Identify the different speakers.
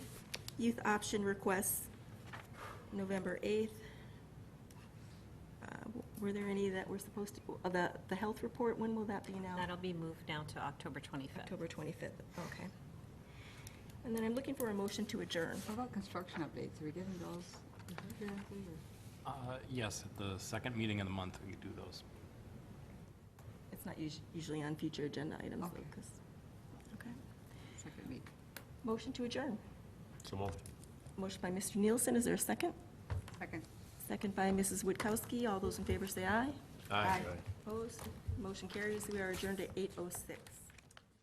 Speaker 1: Youth option requests, November 8th. Uh, w- Were there any that were supposed to, uh, the, the health report, when will that be now?
Speaker 2: That'll be moved now to October 25th.
Speaker 1: October 25th, okay. And then I'm looking for a motion to adjourn.
Speaker 3: What about construction updates? Are we getting those periodically or?
Speaker 4: Uh, Yes, at the second meeting of the month, we could do those.
Speaker 1: It's not us- usually on future agenda items, though,
Speaker 3: Okay.
Speaker 1: 'cause- okay.
Speaker 3: Second meet.
Speaker 1: Motion to adjourn.
Speaker 4: So moved.
Speaker 1: Motion by Mr. Nielsen, is there a second?
Speaker 3: Second.
Speaker 1: Second by Mrs. Witkowski, all those in favor say aye.
Speaker 3: Aye.
Speaker 1: Opposed, motion carries, we are adjourned at 8:06.